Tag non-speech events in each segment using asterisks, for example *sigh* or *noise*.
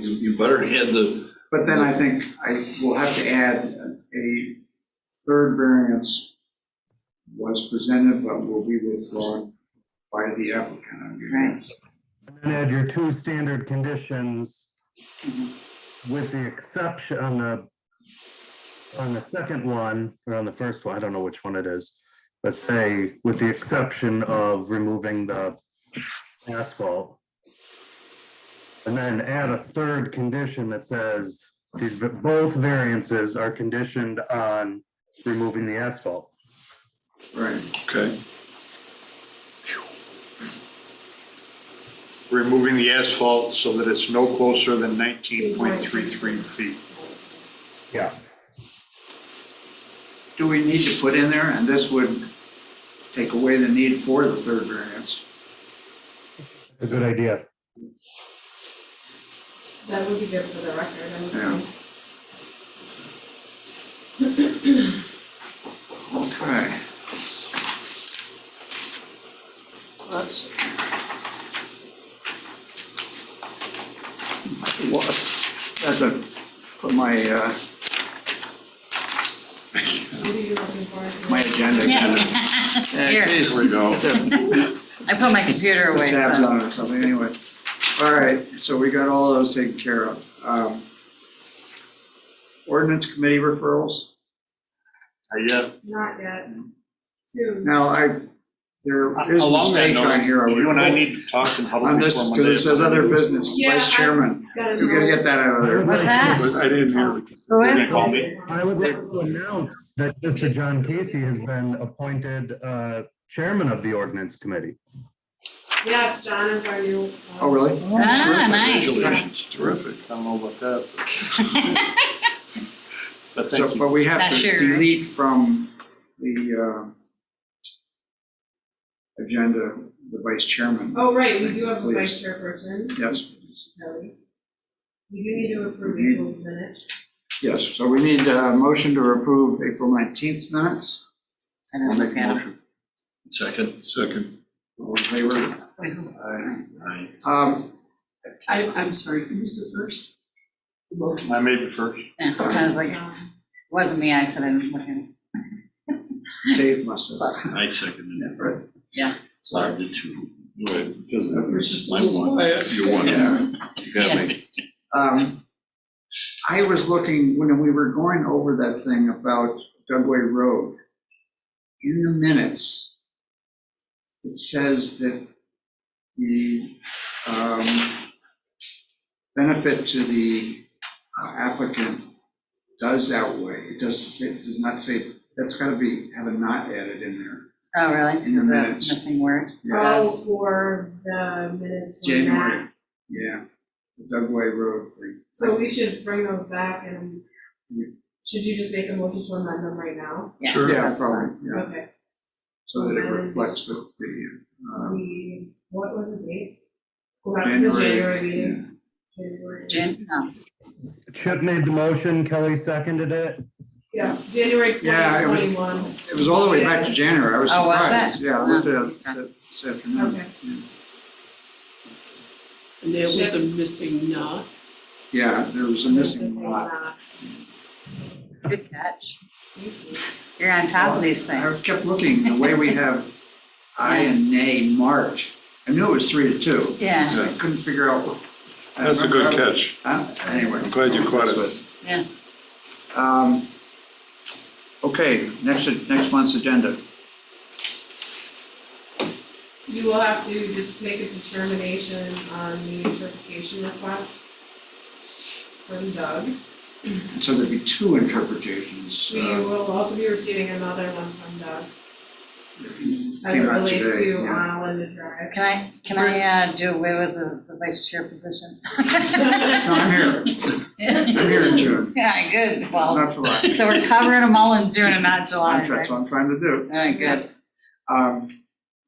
You, you better hand the, But then I think I will have to add a third variance was presented but will be withdrawn by the applicant. Right. And add your two standard conditions Mhm. with the exception on the, on the second one, or on the first one, I don't know which one it is. Let's say with the exception of removing the asphalt. And then add a third condition that says these, v- both variances are conditioned on removing the asphalt. Right, okay, removing the asphalt so that it's no closer than nineteen point three three feet. Yeah. do we need to put in there, and this would take away the need for the third variance? It's a good idea. That would be good for the record, I would Yeah. think. Okay. Lost, had to put my, uh, What are you looking for? my agenda kind of. Yeah, Yeah, Here. geez, *laughs* the I put my computer away, Tabs so. on it or something, anyway. All right, so we got all those taken care of. Um, Ordinance committee referrals? I guess, Not yet. Two. Now, I, there is a Uh, along that mistake on note, here. I you and I would- need to talk in public On this, before because it says Monday. other business, Yeah, vice I- chairman. Gotta We gotta know. get that out of there. What's that? I didn't hear the Oh, Who Did they is? call me? I would like to announce that Mr. John Casey has been appointed uh, chairman of the ordinance committee. Yes, John is our new. uh, Oh, really? Ah, nice. Congratulations, terrific, I don't know about that. but- *laughs* But thank So, you, but we have Not to sure. delete from the, uh, agenda, the vice chairman. Oh, right, we do have a vice chairperson, Yes, Kelly. We do need to approve April's minutes. yes. So we need a motion to approve April nineteenth minutes. I didn't look at it. second. Second. All in favor? Wait, who- Um, I, I'm sorry, who's the first? The motion. I made the first, yeah, I was like, Um, wasn't me, I said I didn't look at it. Dave must have. I seconded it. Right. Yeah. So I did too. Right, doesn't There's just a Mine little won. quiet. You won. *laughs* Yeah. You got me. Um, I was looking, when we were going over that thing about Dugway Road, in the minutes, it says that the, um, benefit to the uh, applicant does outweigh, it doesn't say, does not say, that's gotta be, have a not added in there. Oh, really? In the Is that a minutes. missing word? Oh, Yes. for the minutes from January, that. yeah, the Dugway Road thing. So we should bring those back and Yeah. should you just make a motion to amend them right now? Yeah, Sure. Yeah, that's fine. probably, yeah. Okay, so that it reflects the, the, uh, we, Um, what was the date? Go back to the January January. meeting, January. Jan, no, Chip made the motion, Kelly seconded it. Yeah, January Yeah, twenty it was- twenty-one, It was all the way back to January, I was Oh, was surprised. it? Yeah, I looked at it this afternoon. okay. And there was a missing knot. Yeah, there was a missing lot. that. good catch. Thank you. You're on top of these I things. kept looking, the way we have *laughs* I and nay marked, I knew it was three to two. Yeah, I couldn't figure out. what- I That's a good remember- catch. Huh? Anyway. I'm glad you caught it. Yeah. Um, Okay, next, next month's agenda. You will have to just make a determination on the interpretation request from Doug. So there'd be two interpretations. We uh, will also be receiving another one from Doug as it Came out relates today, to yeah. uh, Linda Drive. can I, can I uh, do away with the, the vice chair position? *laughs* No, I'm here, I'm here in June, Yeah, good, well, not July. so we're covering them all in June and not July, That's right? what I'm trying to do. All right, good. Um,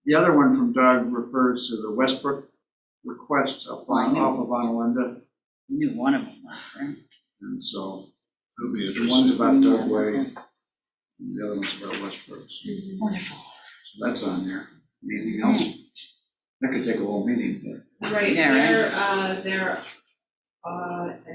The other one from Doug refers to the Westbrook request up on, off of Onalinda, You knew one of them was, right? and so It'll be the one's interesting. about Doug Way, and the other one's about Westbrook, so Wonderful. that's on there. Anything else? That could take a whole meeting, but Right, Yeah, right. their, uh, their uh,